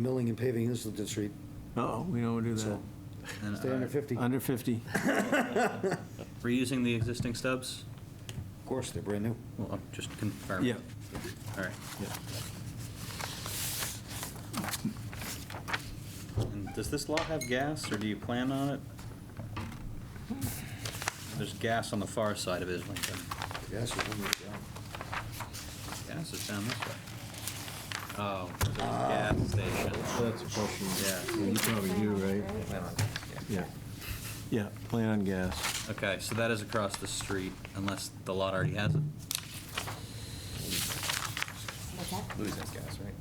milling and paving Islington Street, Uh-oh, we don't do that. so And stay under are- 50. Of Under 50. Reusing the existing stubs? course, they're brand new. Well, I'm just confirming. Yeah. All right. And Does this lot have gas, or do you plan on it? There's gas on the far side of Islington. Yes, it's only down. Gas is down this way. Oh, there's a gas station. Ah. That's a question. Yeah. You probably do, right? Yeah. Yeah, plan on gas. Okay, so that is across the street, unless the lot already has it. What's that? Louis has gas, right?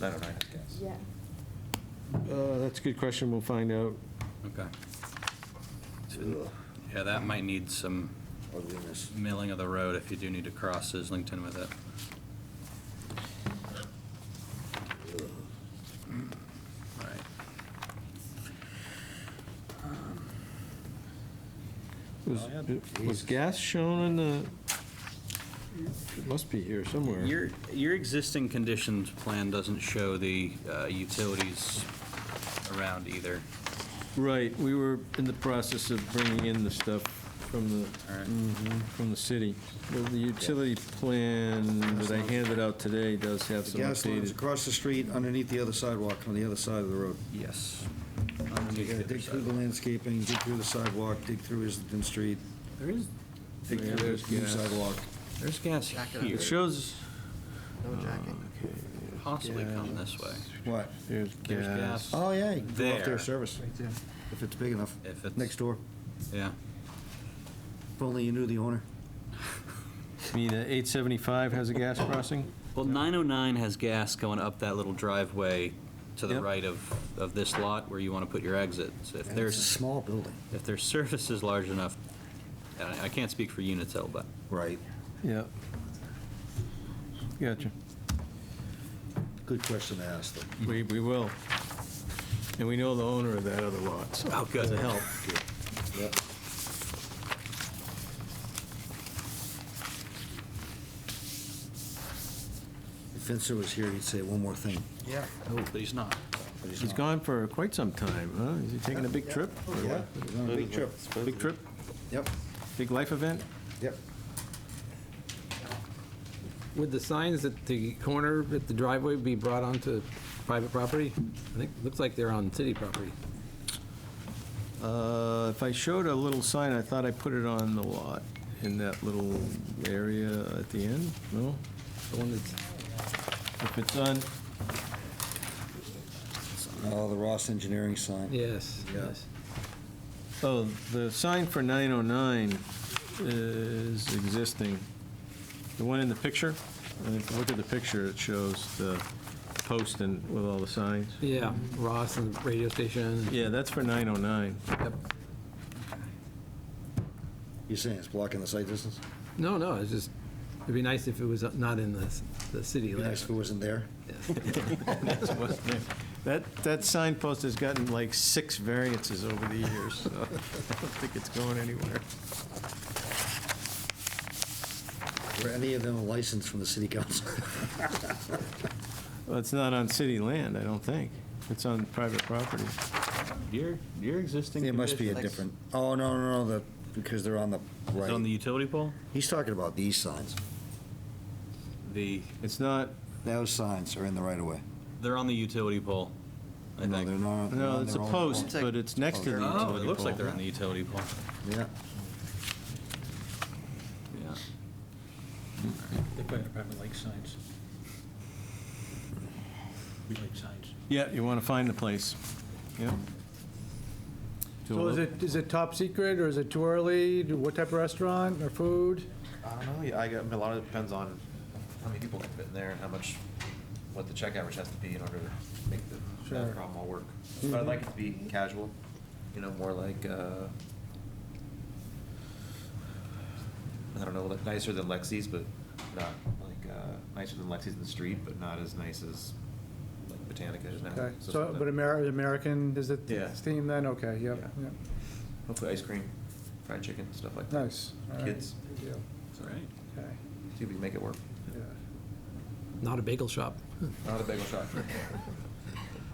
No, no, no, I have gas. Yeah. Uh, That's a good question, we'll find out. Okay. Yeah, that might need some Ugliness. milling of the road if you do need to cross Islington with it. Right. Was- Oh, yeah. Was gas shown on the, it must be here somewhere. Your, your existing conditions plan doesn't show the uh, utilities around either. Right, we were in the process of bringing in the stuff from the, All right. Mhm, from the city. Well, The utility plan that I handed out today does have The some gas line's updated. across the street, underneath the other sidewalk, on the other side of the road. Yes. You gotta dig through the landscaping, dig through the sidewalk, dig through Islington Street, There is, dig Yeah, through there's the new gas. sidewalk. there's gas here, It shows, uh, possibly come this way, What? there's There's gas. gas. Oh, yeah, you can go off There. their service, right there, if it's big enough. If it's- Next door, yeah. if only you knew the owner. I mean, uh, 875 has a gas crossing? Well, 909 has gas going up that little driveway to the Yep. right of, of this lot where you want to put your exits. If And it's a there's, small building. if their surface is large enough, and I I can't speak for Unitil, but Right. Yeah. Gotcha. Good question to ask them. We, we will. And we know the owner of that other lot, so. Oh, good. Doesn't help. Yep. If Fencer was here, he'd say one more thing. Yeah. but he's Oh, not. but He's not. Oh, gone for quite some time, huh? Is he taking a big trip? Yeah, he's on a big trip. Big trip? Yep, Big life event? yep. Would the signs at the corner, at the driveway, be brought onto private property? I think, looks like they're on city property. Uh, If I showed a little sign, I thought I put it on the lot in that little area at the end, no? The one that's, If it's on, Oh, the Ross Engineering sign. yes, Yeah. yes. oh, the sign for 909 is existing. The one in the picture, and if you look at the picture, it shows the post and with all the signs. Yeah, Ross and the radio station. Yeah, that's for 909. Yep. You're saying it's blocking the sight distance? No, no, it's just, it'd be nice if it was not in the, the city. Be nice if it wasn't there. limits. That, that signpost has gotten like six variances over the years, so I don't think it's going anywhere. Were any of them licensed from the city council? Well, it's not on city land, I don't think. It's on private property. Your, your existing. It must be a conditions- different, oh, no, no, no, the, because they're on the Is it on the right. utility pole? He's talking about these signs. The, It's not, Those signs are in the right of way. they're on the utility pole, I No, think. they're not. they're no, on it's a their own post, but it's next to the utility Oh, pole. it looks like they're on the utility pole. pole. Yeah. Yeah. They probably, probably like signs. We like signs. Yeah, you want to find the place. Yeah. So is it, is it top secret, or is it too early? Do- What type of restaurant or food? I don't know, yeah, I got, I mean, a lot of it depends on how many people can fit in there and how much, what the check average has to be in order to make the, that Sure. Mm-hmm. problem all work. But I'd like it to be casual, you know, more like, uh, I don't know, like nicer than Lexi's, but not like, uh, nicer than Lexi's in the street, but not as nice as like Botanica is now. Okay, so, So something- but Amer- American, is it Yeah. theme then? Okay, yep, Yeah. yep, Hopefully ice cream, fried chicken, stuff like that. nice. all right, Kids. good deal, All right. okay, See if we can make it work. yeah. Uh, Not a bagel shop. Not a bagel shop.